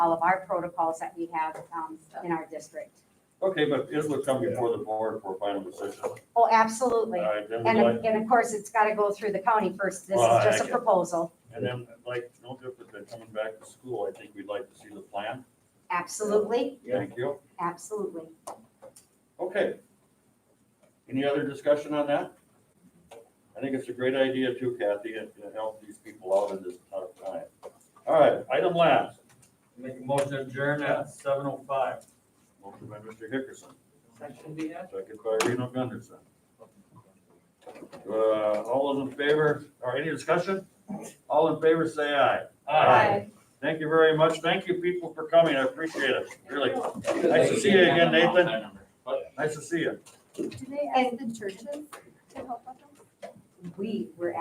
all of our protocols that we have um, in our district. Okay, but it would come before the board for final decision. Oh, absolutely. All right, then we'd like- And, and of course, it's got to go through the county first. This Well, is I just a get- proposal. And then, like, no different than coming back to school, I think we'd like to see the plan. Absolutely, Yeah. Thank you. absolutely. Okay. Any other discussion on that? I think it's a great idea too, Kathy, and to help these people out in this tough time. All right, item last. Make a motion to adjourn at seven oh five. Motion by Mr. Hickerson, Section B, yeah? second by Reno Gunderson. Uh, all those in favor, or any discussion? All in favor, say aye. Aye. Thank you very much. Thank you, people, for coming. I appreciate it, really. Nice to see you again, Nathan. Nice to see you. Do they ask the churches to help with them? We were